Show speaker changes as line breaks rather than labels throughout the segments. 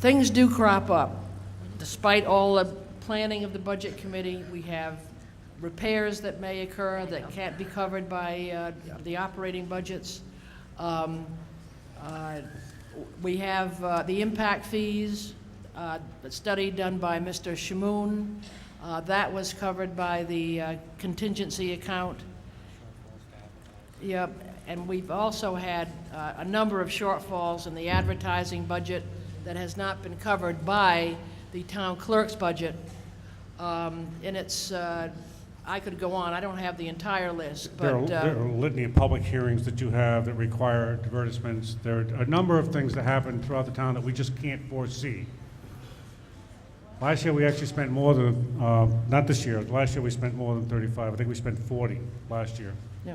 things do crop up. Despite all the planning of the Budget Committee, we have repairs that may occur that can't be covered by uh, the operating budgets. Um, uh, We have uh, the impact fees, uh, the study done by Mr. Shamoon. Uh, That was covered by the uh, contingency account. Yep, and we've also had uh, a number of shortfalls in the advertising budget that has not been covered by the town clerk's budget. Um, And it's, uh, I could go on, I don't have the entire list,
There are
but,
there
uh,
are a litany of public hearings that you have that require advertisements. There are a number of things that happen throughout the town that we just can't foresee. Last year, we actually spent more than, uh, not this year, last year we spent more than 35. I think we spent 40 last year.
yeah.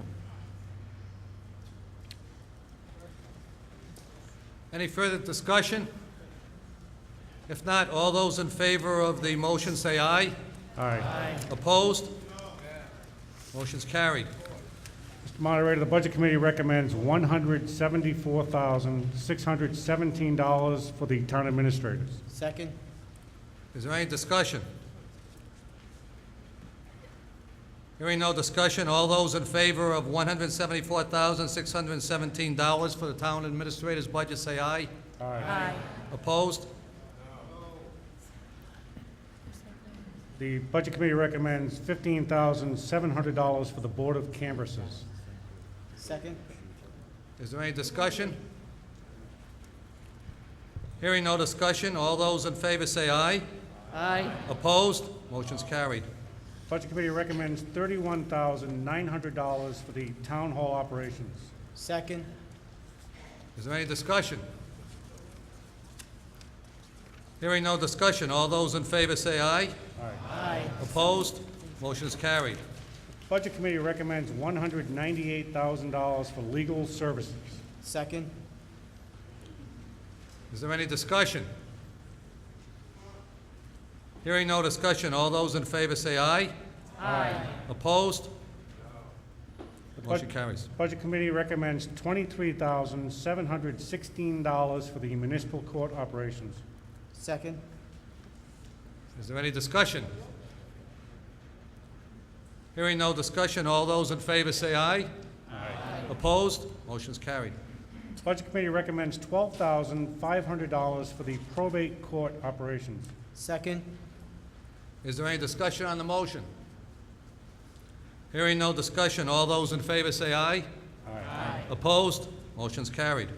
Any further discussion? If not, all those in favor of the motion say aye.
All right.
Opposed? Motion's carried.
Mr. Moderator, the Budget Committee recommends $174,617 for the town administrators.
Second?
Is there any discussion? Hearing no discussion, all those in favor of one hundred seventy-four thousand, six hundred and seventeen dollars for the town administrator's budget, say aye. Opposed?
The Budget Committee recommends $15,700 for the Board of Canvassers.
Second?
Is there any discussion? Hearing no discussion, all those in favor say aye.
Aye,
Opposed? Motion's carried.
Budget Committee recommends thirty-one thousand nine hundred dollars for the town hall operations.
Second?
Is there any discussion? Hearing no discussion, all those in favor say aye.
aye,
Opposed? Motion's carried.
Budget Committee recommends one hundred ninety-eight thousand dollars for legal services.
Second?
Is there any discussion? Hearing no discussion, all those in favor say aye.
aye,
Opposed?
Bud-
Motion carries.
Budget Committee recommends twenty-three thousand seven hundred sixteen dollars for the municipal court operations.
Second?
Is there any discussion? Hearing no discussion, all those in favor say aye. Aye. Opposed? Motion's carried.
Budget Committee recommends twelve thousand five hundred dollars for the probate court operations.
Second?
Is there any discussion on the motion? Hearing no discussion, all those in favor say aye. Aye. Opposed? Motion's carried.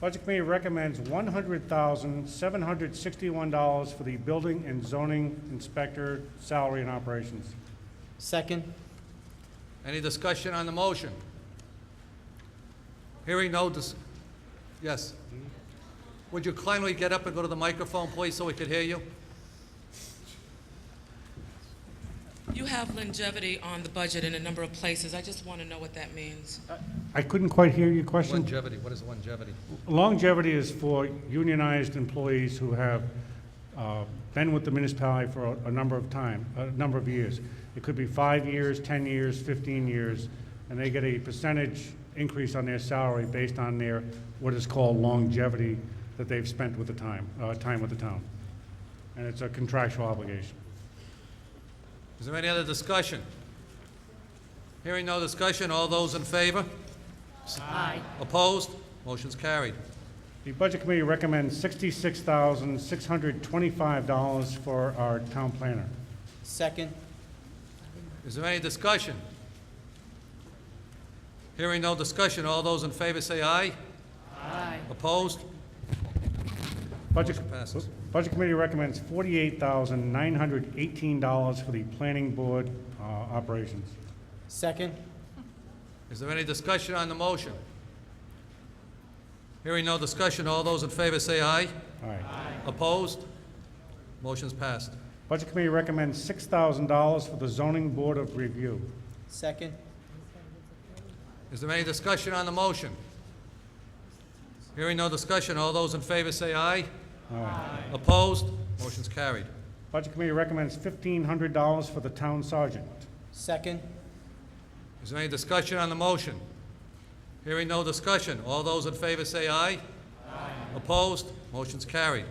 Budget Committee recommends one hundred thousand, seven hundred sixty-one dollars for the building and zoning inspector salary and operations.
Second?
Any discussion on the motion? Hearing no dis, yes. Would you kindly get up and go to the microphone, please, so we could hear you?
You have longevity on the budget in a number of places. I just want to know what that means.
I couldn't quite hear your question.
Longevity, what is longevity?
Longevity is for unionized employees who have uh, been with the municipality for a- a number of time, a number of years. It could be five years, 10 years, 15 years, and they get a percentage increase on their salary based on their, what is called longevity that they've spent with the time, uh, time with the town. And it's a contractual obligation.
Is there any other discussion? Hearing no discussion, all those in favor?
aye,
Opposed? Motion's carried.
The Budget Committee recommends sixty-six thousand, six hundred twenty-five dollars for our town planner.
Second?
Is there any discussion? Hearing no discussion, all those in favor say aye.
aye,
Opposed?
Budget,
Motion passes.
Budget Committee recommends forty-eight thousand, nine hundred eighteen dollars for the planning board, uh, operations.
Second?
Is there any discussion on the motion? Hearing no discussion, all those in favor say aye.
All right.
Opposed? Motion's passed.
Budget Committee recommends six thousand dollars for the zoning board of review.
Second?
Is there any discussion on the motion? Hearing no discussion, all those in favor say aye. Aye. Opposed? Motion's carried.
Budget Committee recommends fifteen hundred dollars for the town sergeant.
Second?
Is there any discussion on the motion? Hearing no discussion, all those in favor say aye. Aye. Opposed? Motion's carried.